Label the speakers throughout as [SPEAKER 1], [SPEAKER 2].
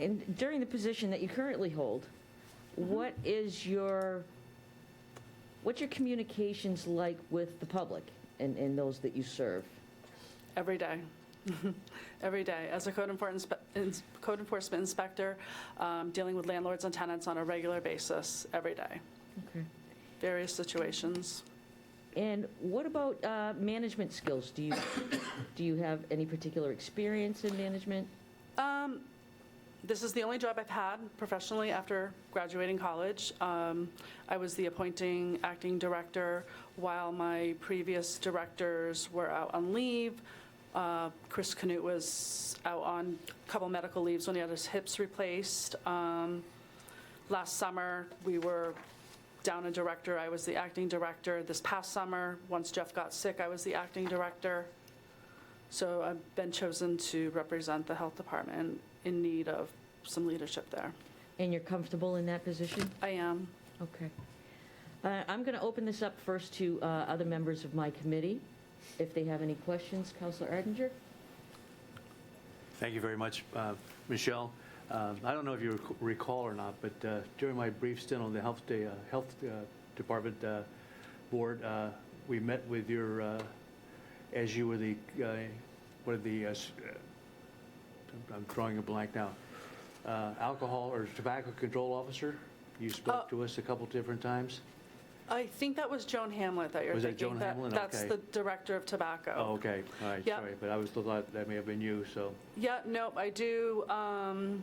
[SPEAKER 1] And during the position that you currently hold, what is your, what's your communications like with the public and, and those that you serve?
[SPEAKER 2] Every day. Every day. As a code enforcement, ins- code enforcement inspector, um, dealing with landlords and tenants on a regular basis, every day,
[SPEAKER 1] Okay.
[SPEAKER 2] various situations.
[SPEAKER 1] And what about uh, management skills? Do you, do you have any particular experience in management?
[SPEAKER 2] Um, This is the only job I've had professionally after graduating college. Um, I was the appointing acting director while my previous directors were out on leave. Uh, Chris Knut was out on a couple medical leaves when he had his hips replaced. Um, Last summer, we were down a director. I was the acting director. This past summer, once Jeff got sick, I was the acting director. So I've been chosen to represent the health department in need of some leadership there.
[SPEAKER 1] And you're comfortable in that position?
[SPEAKER 2] I am.
[SPEAKER 1] Okay. Uh, I'm going to open this up first to uh, other members of my committee, if they have any questions. Counselor Arndinger?
[SPEAKER 3] Thank you very much, uh, Michelle. Uh, I don't know if you rec- recall or not, but uh, during my brief stint on the Health Day, uh, Health uh, Department uh, Board, uh, we met with your, uh, as you were the, uh, what are the, uh, s- uh, I'm drawing a blank now, Uh, alcohol or tobacco control officer? You spoke
[SPEAKER 2] Uh,
[SPEAKER 3] to us a couple different times?
[SPEAKER 2] I think that was Joan Hamlet that you're
[SPEAKER 3] Was that
[SPEAKER 2] thinking.
[SPEAKER 3] Joan Hamlet?
[SPEAKER 2] That's
[SPEAKER 3] Okay.
[SPEAKER 2] the director of tobacco.
[SPEAKER 3] Oh, okay, all right,
[SPEAKER 2] Yeah.
[SPEAKER 3] sorry, but I was, thought that may have been you, so.
[SPEAKER 2] Yeah, nope, I do, um,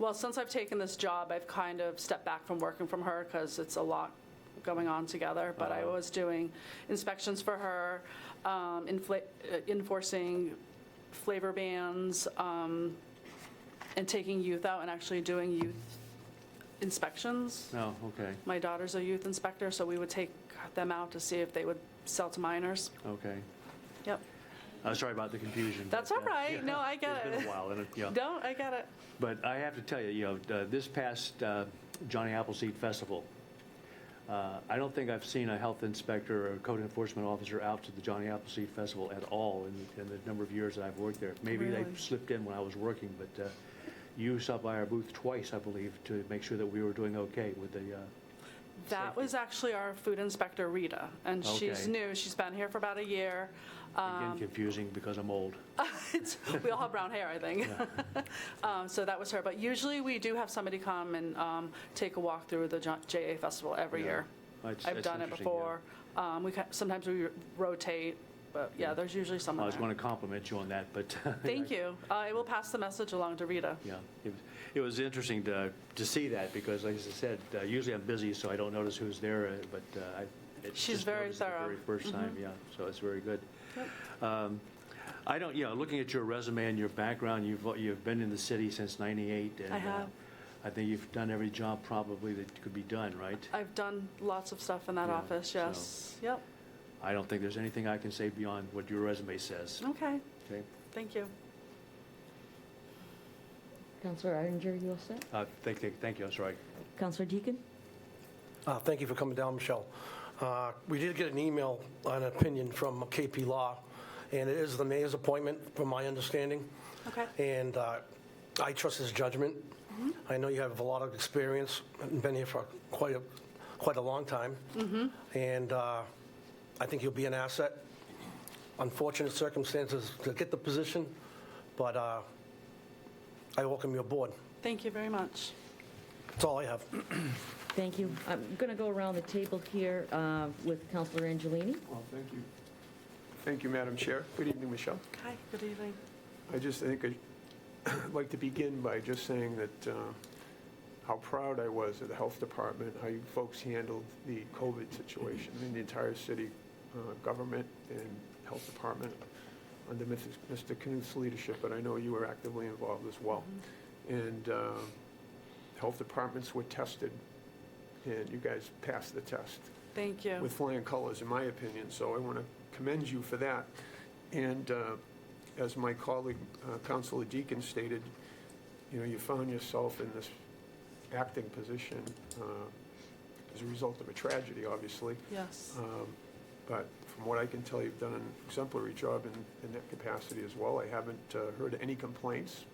[SPEAKER 2] well, since I've taken this job, I've kind of stepped back from working from her because it's a lot going on together, but I
[SPEAKER 3] Uh-huh.
[SPEAKER 2] was doing inspections for her, um, infla- uh, enforcing flavor bans, um, and taking youth out and actually doing youth inspections.
[SPEAKER 3] Oh, okay,
[SPEAKER 2] My daughter's a youth inspector, so we would take them out to see if they would sell to minors.
[SPEAKER 3] okay.
[SPEAKER 2] Yep.
[SPEAKER 3] Uh, Sorry about the confusion.
[SPEAKER 2] That's
[SPEAKER 3] but,
[SPEAKER 2] all
[SPEAKER 3] uh,
[SPEAKER 2] right. No, I get
[SPEAKER 3] It's
[SPEAKER 2] it.
[SPEAKER 3] been a while, and, it- yeah.
[SPEAKER 2] Don't, I got it.
[SPEAKER 3] But I have to tell you, you know, uh, this past uh, Johnny Appleseed Festival, uh, I don't think I've seen a health inspector or code enforcement officer out to the Johnny Appleseed Festival at all in, in the number of years that I've worked there. Maybe they
[SPEAKER 2] Really?
[SPEAKER 3] slipped in when I was working, but uh, you stopped by our booth twice, I believe, to make sure that we were doing okay with the, uh,
[SPEAKER 2] That
[SPEAKER 3] Safety.
[SPEAKER 2] was actually our food inspector, Rita, and she's
[SPEAKER 3] Okay.
[SPEAKER 2] new. She's been here for about a year. Um,
[SPEAKER 3] again, confusing because I'm old.
[SPEAKER 2] It's- We all have brown hair, I think. Um, So that was her. But usually, we do have somebody come and um, take a walk through the Jo- JA Festival every
[SPEAKER 3] Yeah.
[SPEAKER 2] year.
[SPEAKER 3] That's-
[SPEAKER 2] I've
[SPEAKER 3] that's
[SPEAKER 2] done it
[SPEAKER 3] interesting, yeah.
[SPEAKER 2] before. Um, We, ca- sometimes we rotate, but yeah, there's usually
[SPEAKER 3] I
[SPEAKER 2] someone
[SPEAKER 3] was going
[SPEAKER 2] there.
[SPEAKER 3] to compliment you on that, but.
[SPEAKER 2] Thank you. Uh, I will pass the message along to Rita.
[SPEAKER 3] Yeah, it was, it was interesting to, to see that, because like I said, uh, usually I'm busy, so I don't notice who's there, uh, but uh, I. it
[SPEAKER 2] She's
[SPEAKER 3] just
[SPEAKER 2] very
[SPEAKER 3] noticed the
[SPEAKER 2] thorough. Mm-hmm.
[SPEAKER 3] Very first time, yeah, so it's very good. Um, I don't, you know, looking at your resume and your background, you've, you've been in the city since 98. and,
[SPEAKER 2] I
[SPEAKER 3] uh,
[SPEAKER 2] have.
[SPEAKER 3] I think you've done every job probably that could be done, right?
[SPEAKER 2] I've done lots of stuff in that
[SPEAKER 3] Yeah,
[SPEAKER 2] office,
[SPEAKER 3] so-
[SPEAKER 2] yes. Yep,
[SPEAKER 3] I don't think there's anything I can say beyond what your resume says,
[SPEAKER 2] okay,
[SPEAKER 3] okay?
[SPEAKER 2] thank you.
[SPEAKER 1] Counselor Arndinger, you all set?
[SPEAKER 3] Uh, Thank, thank- thank you, I'm sorry.
[SPEAKER 1] Counselor Deacon?
[SPEAKER 4] Uh, Thank you for coming down, Michelle. Uh, We did get an email, an opinion from KP Law, and it is the mayor's appointment, from my understanding.
[SPEAKER 2] Okay.
[SPEAKER 4] And uh, I trust his judgment. I know you have a lot of experience, and been here for quite a, quite a long time. And uh, I think you'll be an asset. Unfortunate circumstances to get the position, but uh, I welcome you aboard.
[SPEAKER 2] Thank you very much.
[SPEAKER 4] That's all I have.
[SPEAKER 1] Thank you. I'm going to go around the table here uh, with Counselor Angelini.
[SPEAKER 5] Well, thank you. Thank you, Madam Chair. Good evening, Michelle.
[SPEAKER 2] Hi, good evening.
[SPEAKER 5] I just think I'd like to begin by just saying that uh, how proud I was of the Health Department, how you folks handled the COVID situation in the entire city uh, government and Health Department under Mrs. Mr. Knuth's leadership, but I know you were actively involved as well. And uh, Health Departments were tested, and you guys passed the test.
[SPEAKER 2] Thank you.
[SPEAKER 5] with flying colors, in my opinion, so I want to commend you for that. And uh, as my colleague, uh, Counselor Deacon stated, you know, you found yourself in this acting position uh, as a result of a tragedy, obviously.
[SPEAKER 2] Yes.
[SPEAKER 5] Um, But from what I can tell, you've done an exemplary job in, in that capacity as well. I haven't uh, heard any complaints